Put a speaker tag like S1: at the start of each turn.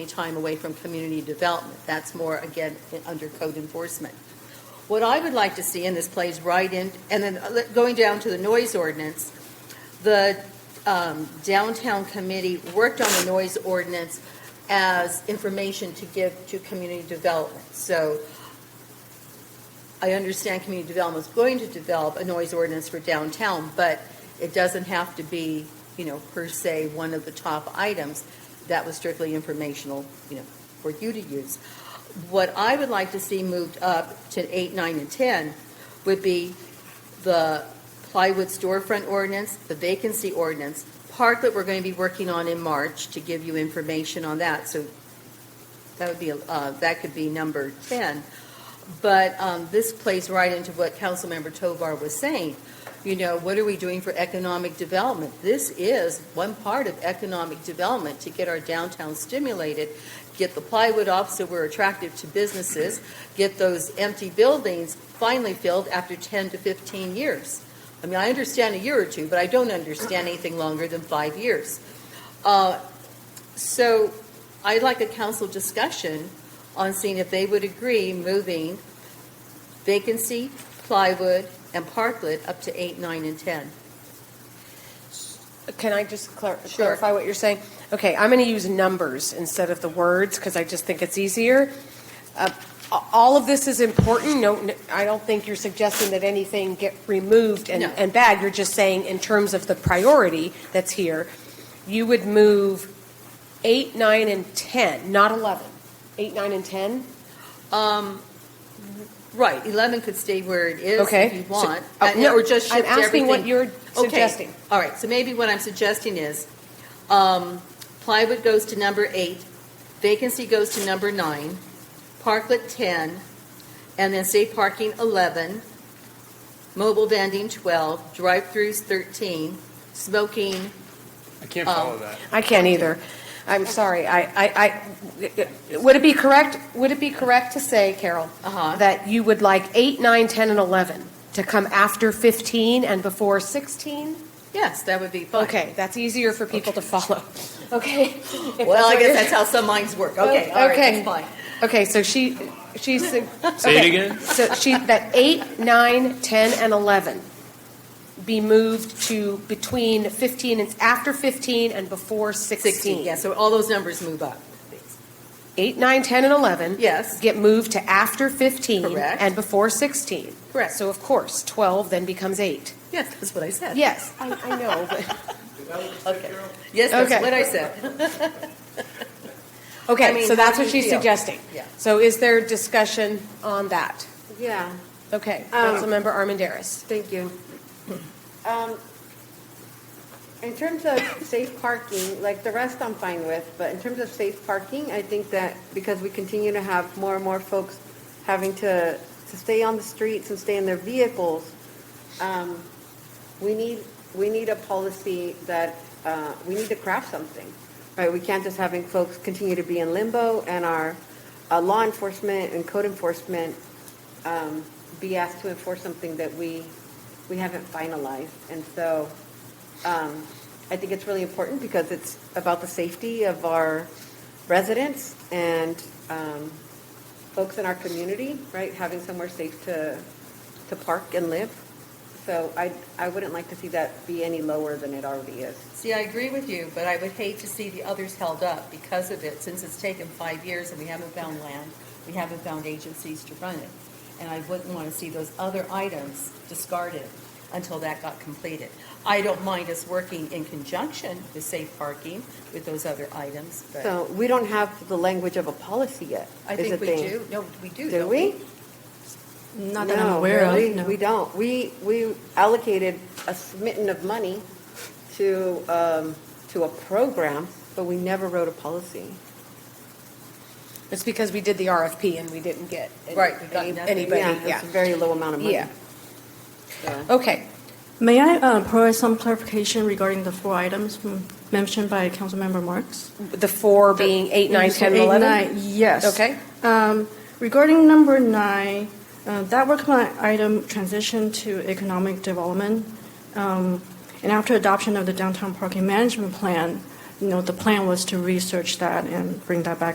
S1: any time away from community development. That's more, again, in- under code enforcement. What I would like to see, and this plays right in, and then uh, le- going down to the noise ordinance, the um, downtown committee worked on the noise ordinance as information to give to community development. So I understand community development is going to develop a noise ordinance for downtown, but it doesn't have to be, you know, per se, one of the top items. That was strictly informational, you know, for you to use. What I would like to see moved up to eight, nine, and 10 would be the plywood storefront ordinance, the vacancy ordinance, part that we're going to be working on in March to give you information on that. So that would be, uh, that could be number 10. But um, this plays right into what Councilmember Tovar was saying. You know, what are we doing for economic development? This is one part of economic development, to get our downtown stimulated, get the plywood off so we're attractive to businesses, get those empty buildings finally filled after 10 to 15 years. I mean, I understand a year or two, but I don't understand anything longer than five years. Uh, So I'd like a council discussion on seeing if they would agree moving vacancy, plywood, and parklet up to eight, nine, and 10.
S2: Can I just clar-
S1: Sure.
S2: clarify what you're saying? Okay, I'm going to use numbers instead of the words because I just think it's easier. Uh, a- All of this is important. No, n- I don't think you're suggesting that anything get removed and,
S1: No.
S2: and bad. You're just saying in terms of the priority that's here, you would move eight, nine, and 10, not 11. Eight, nine, and 10?
S1: Um, Right, 11 could stay where it is
S2: Okay.
S1: if you
S2: So-
S1: want.
S2: oh,
S1: and-
S2: no,
S1: Or just shift
S2: I'm
S1: everything.
S2: asking what you're
S1: Okay.
S2: suggesting.
S1: All right, so maybe what I'm suggesting is um, plywood goes to number eight, vacancy goes to number nine, parklet 10, and then say parking 11, mobile vending 12, drive-throughs 13, smoking
S3: I can't
S1: Um,
S3: follow that.
S2: I can't either. I'm sorry, I, I, I, would it be correct, would it be correct to say, Carol,
S1: Uh-huh.
S2: that you would like 8, 9, 10, and 11 to come after 15 and before 16?
S1: Yes, that would be fine.
S2: Okay, that's easier for people to follow. Okay? If
S1: Well, I
S2: what
S1: guess
S2: you're-
S1: that's how some minds work. Okay, all right,
S2: Okay.
S1: that's fine.
S2: Okay, so she, she's. Say
S3: Say it again?
S2: So she, that 8, 9, 10, and 11 be moved to between 15, and after 15 and before 16.
S1: 16, yeah, so all those numbers move up.
S2: 8, 9, 10, and 11.
S1: Yes,
S2: get moved to after 15
S1: Correct.
S2: and before 16.
S1: Correct.
S2: So of course, 12 then becomes 8.
S1: yes, that's what I said.
S2: Yes, I, I know, but,
S1: Okay. Yes, that's
S2: Okay.
S1: what I said. I
S2: okay,
S1: mean,
S2: so that's
S1: how
S2: what
S1: do you
S2: she's
S1: feel?
S2: suggesting.
S1: Yeah.
S2: So is there discussion on that?
S4: Yeah,
S2: Okay,
S4: Um,
S2: Councilmember Armandaris.
S4: thank you. Um, In terms of safe parking, like the rest I'm fine with, but in terms of safe parking, I think that because we continue to have more and more folks having to, to stay on the streets and stay in their vehicles, um, we need, we need a policy that, uh, we need to craft something, right? We can't just having folks continue to be in limbo and our uh, law enforcement and code enforcement um, be asked to enforce something that we, we haven't finalized. And so um, I think it's really important because it's about the safety of our residents and um, folks in our community, right? Having somewhere safe to, to park and live. So I, I wouldn't like to see that be any lower than it already is.
S1: See, I agree with you, but I would hate to see the others held up because of it, since it's taken five years and we haven't found land, we haven't found agencies to run it. And I wouldn't want to see those other items discarded until that got completed. I don't mind us working in conjunction with safe parking with those other items, but
S4: So we don't have the language of a policy yet.
S1: I
S4: is the
S1: think we
S4: thing.
S1: do. No, we do,
S4: Do
S1: don't
S4: we?
S5: Not that I'm aware
S4: really,
S5: of, no.
S4: We don't. We, we allocated a smitten of money to, um, to a program, but we never wrote a policy.
S2: It's because we did the RFP and we didn't get any-
S1: Right, we got
S2: any-
S1: nothing.
S2: anybody,
S4: Yeah,
S2: yeah.
S4: it's a very low amount of money.
S2: Yeah.
S4: So-
S2: Okay,
S5: May I uh, provide some clarification regarding the four items m- mentioned by Councilmember Marks?
S2: the four being 8, 9, 10, and
S5: Eight,
S2: 11?
S5: nine, Yes.
S2: Okay.
S5: Um, Regarding number nine, uh, that work plan item transition to economic development. um, And after adoption of the downtown parking management plan, you know, the plan was to research that and bring that back